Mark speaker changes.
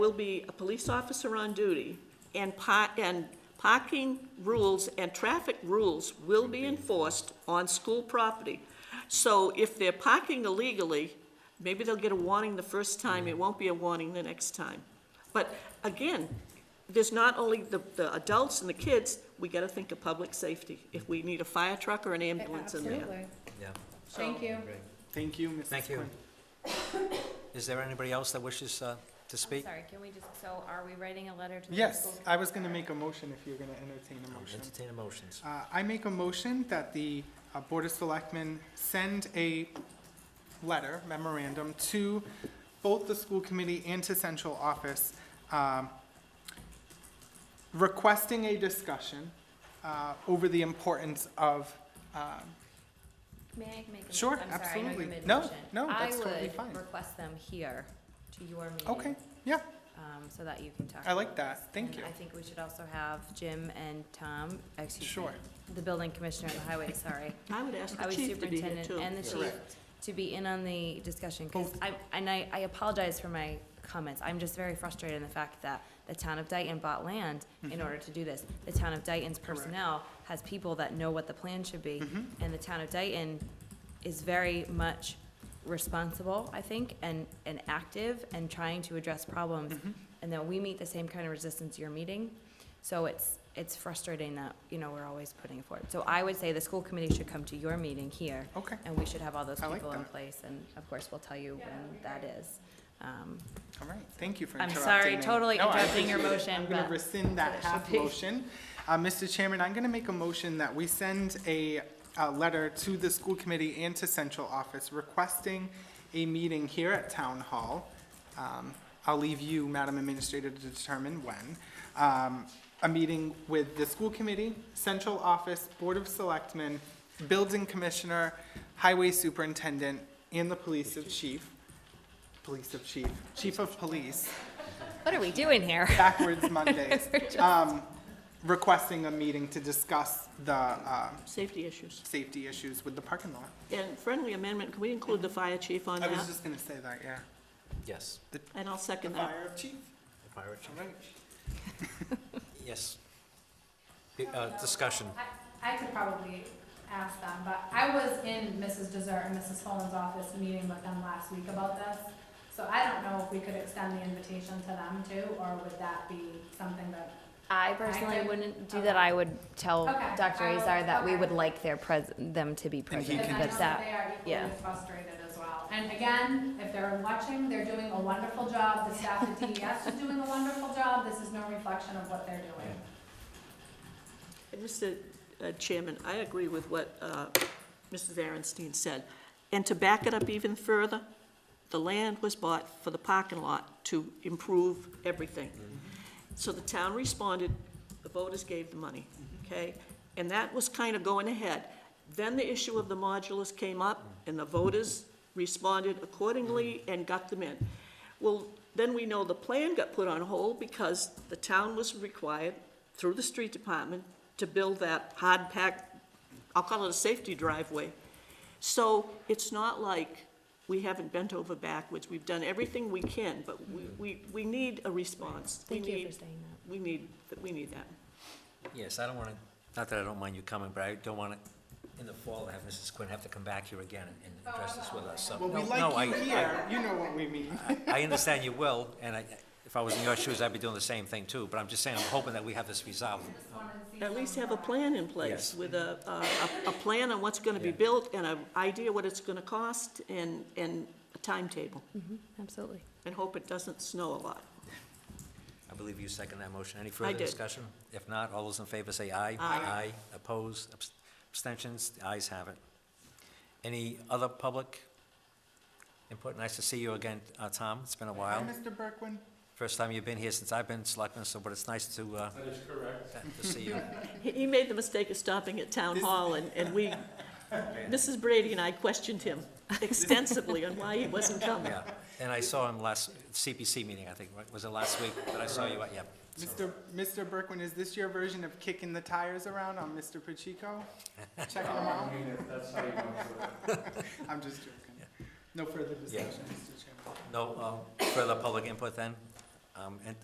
Speaker 1: will be a police officer on duty, and pa, and parking rules and traffic rules will be enforced on school property. So if they're parking illegally, maybe they'll get a warning the first time, it won't be a warning the next time. But again, there's not only the, the adults and the kids, we gotta think of public safety, if we need a fire truck or an ambulance in there.
Speaker 2: Absolutely.
Speaker 3: Yeah,
Speaker 4: Oh,
Speaker 2: Thank you.
Speaker 3: great.
Speaker 4: Thank you, Mrs.
Speaker 3: Thank you.
Speaker 4: Quinn.
Speaker 3: Is there anybody else that wishes uh, to speak?
Speaker 5: Sorry, can we just, so are we writing a letter to the
Speaker 4: Yes, uh,
Speaker 5: schools?
Speaker 4: I was gonna make a motion if you're gonna entertain a
Speaker 3: I'll
Speaker 4: motion.
Speaker 3: Entertain a motions.
Speaker 4: Uh, I make a motion that the uh, Board of Selectmen send a letter memorandum to both the school committee and to central office um, requesting a discussion uh, over the importance of, um,
Speaker 5: May I make a?
Speaker 4: Sure,
Speaker 5: I'm sorry, I know
Speaker 4: absolutely.
Speaker 5: you made a
Speaker 4: No,
Speaker 5: motion.
Speaker 4: no, that's totally
Speaker 5: I
Speaker 4: fine.
Speaker 5: would request them here to your meeting.
Speaker 4: okay, yeah,
Speaker 5: Um, so that you can talk.
Speaker 4: I like
Speaker 5: about this.
Speaker 4: that. Thank
Speaker 5: And
Speaker 4: you.
Speaker 5: I think we should also have Jim and Tom, excuse me.
Speaker 4: Sure.
Speaker 5: The building commissioner and the highway, sorry.
Speaker 1: I would ask the
Speaker 5: highway
Speaker 1: chief to be here
Speaker 5: superintendent
Speaker 1: too.
Speaker 5: and the chief to be in on the discussion, because I, and I, I apologize for my comments. I'm just very frustrated in the fact that the town of Dayton bought land in order to do this. The town of Dayton's personnel has people that know what the plan should be, and the town of Dayton is very much responsible, I think, and, and active and trying to address problems. And that we meet the same kind of resistance you're meeting. So it's, it's frustrating that, you know, we're always putting it forward. So I would say the school committee should come to your meeting here.
Speaker 4: Okay.
Speaker 5: And we should have all those
Speaker 4: I like
Speaker 5: people in
Speaker 4: that.
Speaker 5: place, and of course, we'll tell you when that is. Um,
Speaker 4: all right, thank you for
Speaker 5: I'm
Speaker 4: interrupting
Speaker 5: sorry,
Speaker 4: me.
Speaker 5: totally
Speaker 4: No, I
Speaker 5: interrupting your
Speaker 4: appreciate it.
Speaker 5: motion,
Speaker 4: I'm gonna
Speaker 5: but
Speaker 4: rescind that
Speaker 5: that's what it should
Speaker 4: half
Speaker 5: be.
Speaker 4: motion. Uh, Mr. Chairman, I'm gonna make a motion that we send a, uh letter to the school committee and to central office requesting a meeting here at town hall. Um, I'll leave you, Madam Administrator, to determine when. Um, a meeting with the school committee, central office, board of selectmen, building commissioner, highway superintendent, and the police of chief, police of chief, chief of police,
Speaker 5: What are we doing here?
Speaker 4: backwards Mondays, um, requesting a meeting to discuss the, uh,
Speaker 1: Safety issues.
Speaker 4: safety issues with the parking lot.
Speaker 1: And friendly amendment, can we include the fire chief on
Speaker 4: I was
Speaker 1: that?
Speaker 4: just gonna say that, yeah.
Speaker 3: Yes.
Speaker 1: And I'll second that.
Speaker 4: chief.
Speaker 3: If I were to-
Speaker 4: All right.
Speaker 3: Yes. Be- uh, Discussion.
Speaker 2: I- I could probably ask them, but I was in Mrs. Dessert and Mrs. Follin's office meeting with them last week about this. So I don't know if we could extend the invitation to them too, or would that be something that,
Speaker 5: I
Speaker 2: personally
Speaker 5: personally
Speaker 2: I-
Speaker 5: wouldn't do
Speaker 2: okay.
Speaker 5: that. I would tell
Speaker 2: Okay,
Speaker 5: Dr.
Speaker 2: I will-
Speaker 5: Azar that we
Speaker 2: okay.
Speaker 5: would like their pres, them to be
Speaker 4: And he
Speaker 5: present,
Speaker 4: can-
Speaker 2: because
Speaker 5: but
Speaker 2: I know that
Speaker 5: that,
Speaker 2: they are
Speaker 5: yeah.
Speaker 2: equally frustrated as well. And again, if they're watching, they're doing a wonderful job, the staff at DES is doing a wonderful job, this is no reflection of what they're doing.
Speaker 1: Mr. Uh, Chairman, I agree with what uh, Mrs. Aaronstein said. And to back it up even further, the land was bought for the parking lot to improve everything. So the town responded, the voters gave the money, okay? And that was kind of going ahead. Then the issue of the modulus came up, and the voters responded accordingly and got them in. Well, then we know the plan got put on hold because the town was required, through the street department, to build that hard-packed, I'll call it a safety driveway. So it's not like we haven't bent over backwards. We've done everything we can, but we, we, we need a response. We
Speaker 5: thank you for
Speaker 1: need-
Speaker 5: saying that.
Speaker 1: We need, we need that.
Speaker 3: Yes, I don't want to, not that I don't mind you coming, but I don't want to, in the fall, have Mrs. Quinn have to come back here again and- and address this with us. So-
Speaker 4: Well, we
Speaker 3: No, no, I-
Speaker 4: like you here, you know what we mean.
Speaker 3: I understand you will, and I, if I was in your shoes, I'd be doing the same thing too, but I'm just saying, I'm hoping that we have this resolved.
Speaker 1: At least have a plan in place
Speaker 3: Yes.
Speaker 1: with a, a, a- a plan on what's gonna be
Speaker 3: Yeah.
Speaker 1: built and an idea what it's gonna cost and, and a timetable.
Speaker 5: Absolutely.
Speaker 1: And hope it doesn't snow a lot.
Speaker 3: I believe you second that motion. Any further
Speaker 1: did.
Speaker 3: discussion? If not, all those in favor say aye. Aye. Oppose, abs- abstentions, the ayes have it. Any other public input? Nice to see you again, uh, Tom. It's been a
Speaker 4: Hi,
Speaker 3: while.
Speaker 4: Mr. Berkwin.
Speaker 3: First time you've been here since I've been selectman, so, but it's nice to, uh,
Speaker 6: That is correct.
Speaker 3: to see you.
Speaker 1: He, he made the mistake of stopping at town hall and, and we, Mrs. Brady and I questioned him extensively on why he wasn't coming.
Speaker 3: Yeah. And I saw him last, CPC meeting, I think, right? was it last week that I saw you at? Yeah. So,
Speaker 4: Mr. Mr. Berkwin, is this your version of kicking the tires around on Mr. Pacheco? Checking him
Speaker 6: I
Speaker 4: out?
Speaker 6: mean, if that's how you want to do it.
Speaker 4: I'm just joking. No further discussion, Mr. Chairman.
Speaker 3: No, um, further public uh, input then? um, and